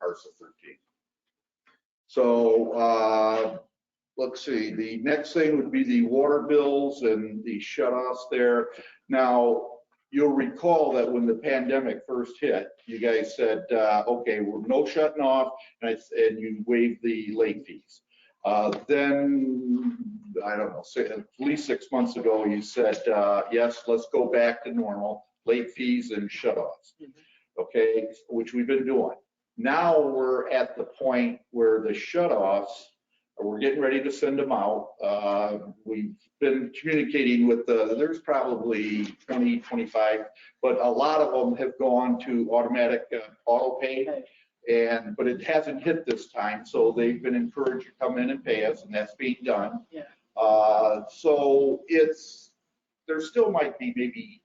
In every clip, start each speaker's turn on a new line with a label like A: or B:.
A: March the 13th. So uh, let's see, the next thing would be the water bills and the shut-offs there. Now, you'll recall that when the pandemic first hit, you guys said, uh, okay, we're no shutting off, and I- and you waived the late fees. Uh, Then, I don't know, say, at least six months ago, you said, uh, yes, let's go back to normal, late fees and shut-offs. Okay, which we've been doing. Now we're at the point where the shut-offs, we're getting ready to send them out. Uh, We've been communicating with the, there's probably 20, 25, but a lot of them have gone to automatic uh, auto pay. And, but it hasn't hit this time, so they've been encouraged to come in and pay us, and that's being done.
B: Yeah.
A: Uh, So it's, there still might be maybe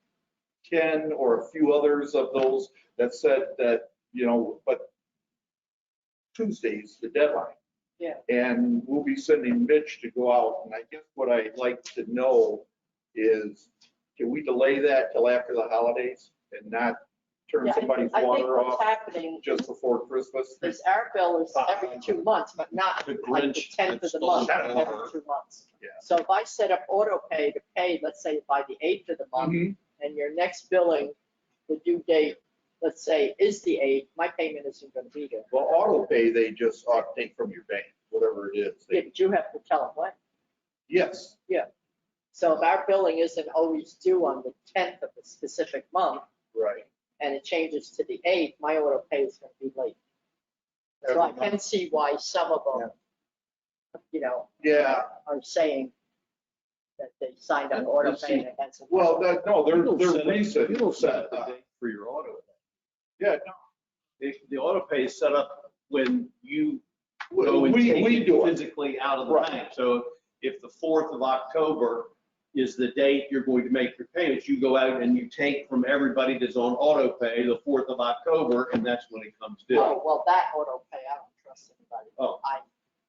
A: 10 or a few others of those that said that, you know, but Tuesday's the deadline.
B: Yeah.
A: And we'll be sending Mitch to go out, and I guess what I'd like to know is, can we delay that till after the holidays and not turn
B: Yeah, I-
A: somebody's
B: I think
A: water off?
B: what's happening
A: just before Christmas.
B: is our bill is every two months, but not
C: The
B: like the
C: Grinch
B: tenth of the
C: stole
B: month,
A: our-
B: every two months.
A: Yeah.
B: So if I set up auto pay to pay, let's say by the eighth of the month,
A: Mhm.
B: and your next billing, the due date, let's say, is the eighth, my payment isn't gonna be there.
A: Well, auto pay, they just ought to take from your bank, whatever it is.
B: Yeah,
A: They-
B: but you have to tell them when.
A: Yes,
B: So if our billing isn't always due on the tenth of a specific month,
A: right.
B: and it changes to the eighth, my auto pay is gonna be late. So I can see why some of them, you know,
A: Yeah,
B: are saying that they signed on auto pay and it hasn't.
A: well, that,
C: Oh,
A: no, they're, they're recent.
C: You don't set the
A: Uh,
C: date for your auto.
A: Yeah,
C: The, the auto pay is set up when you
A: no,
C: go and
A: we,
C: take
A: we
C: it
A: do it.
C: physically out of the
A: Right.
C: bank. So if the 4th of October is the date you're going to make your payments, you go out and you take from everybody that's on auto pay the 4th of October, and that's when it comes due.
B: Oh, well, that auto pay, I don't trust anybody.
C: Oh.
B: I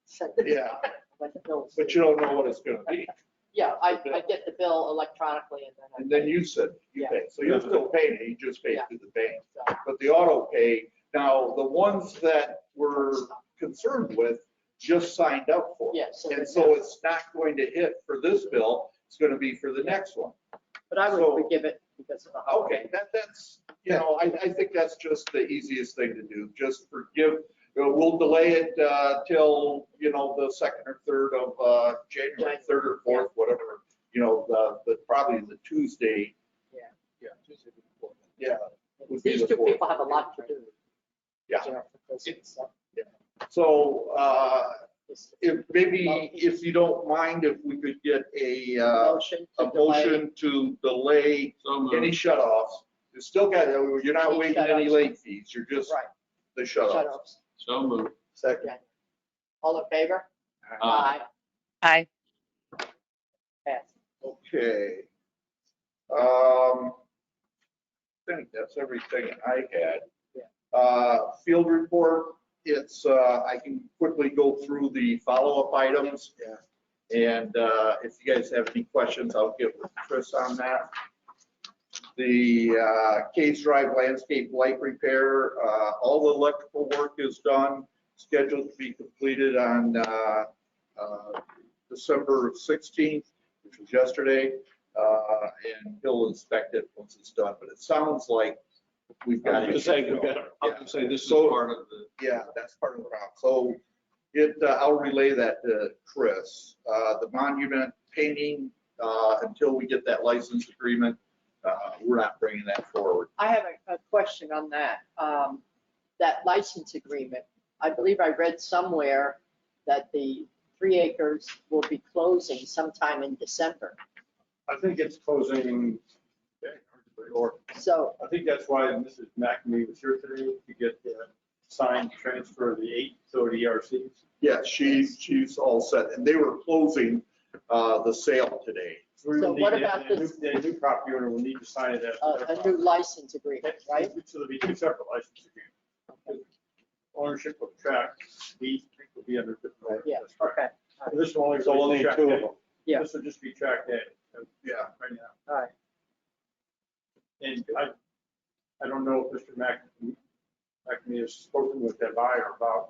B: send the.
A: Yeah.
B: When the bill's.
A: But you don't know what it's gonna be.
B: Yeah, I, I get the bill electronically and then. I
A: And then
B: pay.
A: you said you
B: Yeah.
A: pay. So you're still paying, it, you just pay
B: Yeah.
A: through the bank.
B: So,
A: But the auto pay, now, the ones that we're concerned with just signed up for.
B: Yeah, so.
A: And
B: the-
A: so it's not going to hit for this bill, it's gonna be for the next one.
B: But I
A: so-
B: would forgive it because of the holiday.
A: Okay, that, that's, you know, I, I think that's just the easiest thing to do, just forgive, you know, we'll delay it, uh, till, you know, the second or third of, uh, January,
B: Right.
A: third or fourth, whatever, you know, the, the, probably the Tuesday. Yeah. would be
B: These
A: the
B: two
A: fourth.
B: people have a lot to do.
A: Yeah.
B: you know, for Christmas, so
A: So, uh,
B: it's
A: if, maybe, if you don't mind, if we could get a,
B: a
A: uh,
B: Motion. to
A: a
B: delay. Mm-hmm.
A: motion to delay any shut-offs. You still got, you're not
B: Any
A: waiving any
B: shut-offs.
A: late fees, you're just
B: Right,
A: the
B: shut
A: shut-offs.
B: ups.
C: So moved.
A: Second.
B: All in favor?
C: Aye.
D: Aye.
B: Pass.
A: Okay. Um, I think that's everything I had. Uh, field report, it's, uh, I can quickly go through the follow-up items. And, uh, if you guys have any questions, I'll get with Chris on that. The, uh, Case Drive landscape light repair, uh, all the electrical work is done, scheduled to be completed on, uh, uh, December sixteenth which was yesterday, uh, and he'll inspect it once it's done, but it sounds like we've
C: I
A: got.
C: was gonna
A: issues
C: say,
A: going.
C: we've got, I was gonna say, this is
A: So-
C: part of the.
A: Yeah, that's part of the problem. So it, uh, I'll relay that to Chris. Uh, The monument painting, uh, until we get that license agreement, uh, we're not bringing that forward.
B: I have a, a question on that, um, that license agreement. I believe I read somewhere that the three acres will be closing sometime in December.
E: I think it's closing, or,
B: So,
E: I think that's why Mrs. McNamee was here today, to get the signed transfer of the eight, so the E ERCs.
A: Yeah, she, she's all set, and they were closing uh, the sale today.
E: We will
B: So what
E: need to-
B: about
E: the new-
B: this- Uh,
E: The new property owner will need to sign it as.
B: a, a new license agreement, right?
E: So there'll be two separate licenses. Ownership of track, these will be under. different-
B: Yeah,
E: That's right.
B: okay,
E: And This will only.
C: So only
E: track
C: two of
E: A.
C: them.
B: Yeah.
E: This will just be track A.
A: Yeah.
E: Right now.
B: all right.
E: And I, I don't know if Mr. Mac, Acme has spoken with that buyer about